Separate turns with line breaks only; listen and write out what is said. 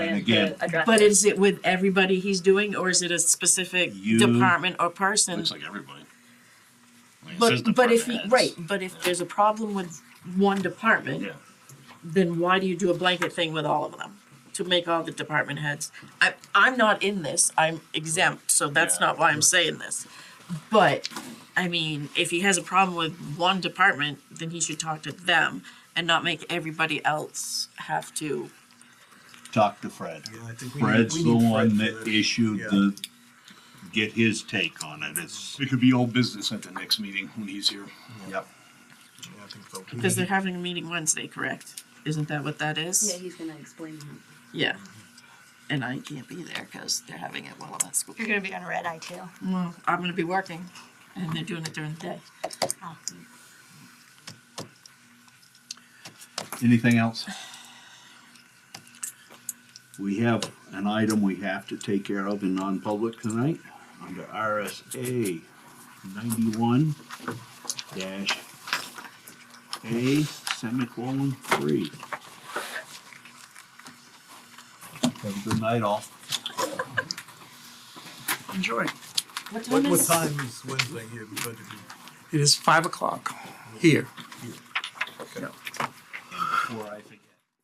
here
Again.
to address.
But is it with everybody he's doing, or is it a specific
You-
department or person?
Looks like everybody. Like, it says
But, but if, he-
department heads.
right, but if there's a problem with one department,
Yeah,
then why do you do a blanket thing with all of them? To make all the department heads, I, I'm not in this, I'm exempt, so that's
Yeah.
not why I'm saying this. But, I mean, if he has a problem with one department, then he should talk to them and not make everybody else have to.
talk to Fred.
Yeah, I think we need-
Fred's
we
the
need Fred
one
for
that
this.
issued
Yeah.
the, get his take on it, it's,
it could be old business at the next meeting when he's here.
yep.
Yeah, I think so.
Because
Mm-hmm.
they're having a meeting Wednesday, correct? Isn't that what that
Yeah,
is?
he's gonna explain that.
Yeah. And I can't be there because they're having it while I'm at school.
You're gonna be on red eye too.
Well, I'm gonna be working and they're doing it during the day.
Oh.
Anything else? We have an item we have to take care of in non-public tonight, under RSA ninety-one dash A semicolon three. Have a good night all.
Enjoy.
What
What,
time
what
is?
time is Wednesday here? We better be-
It is five o'clock here.
Before I think.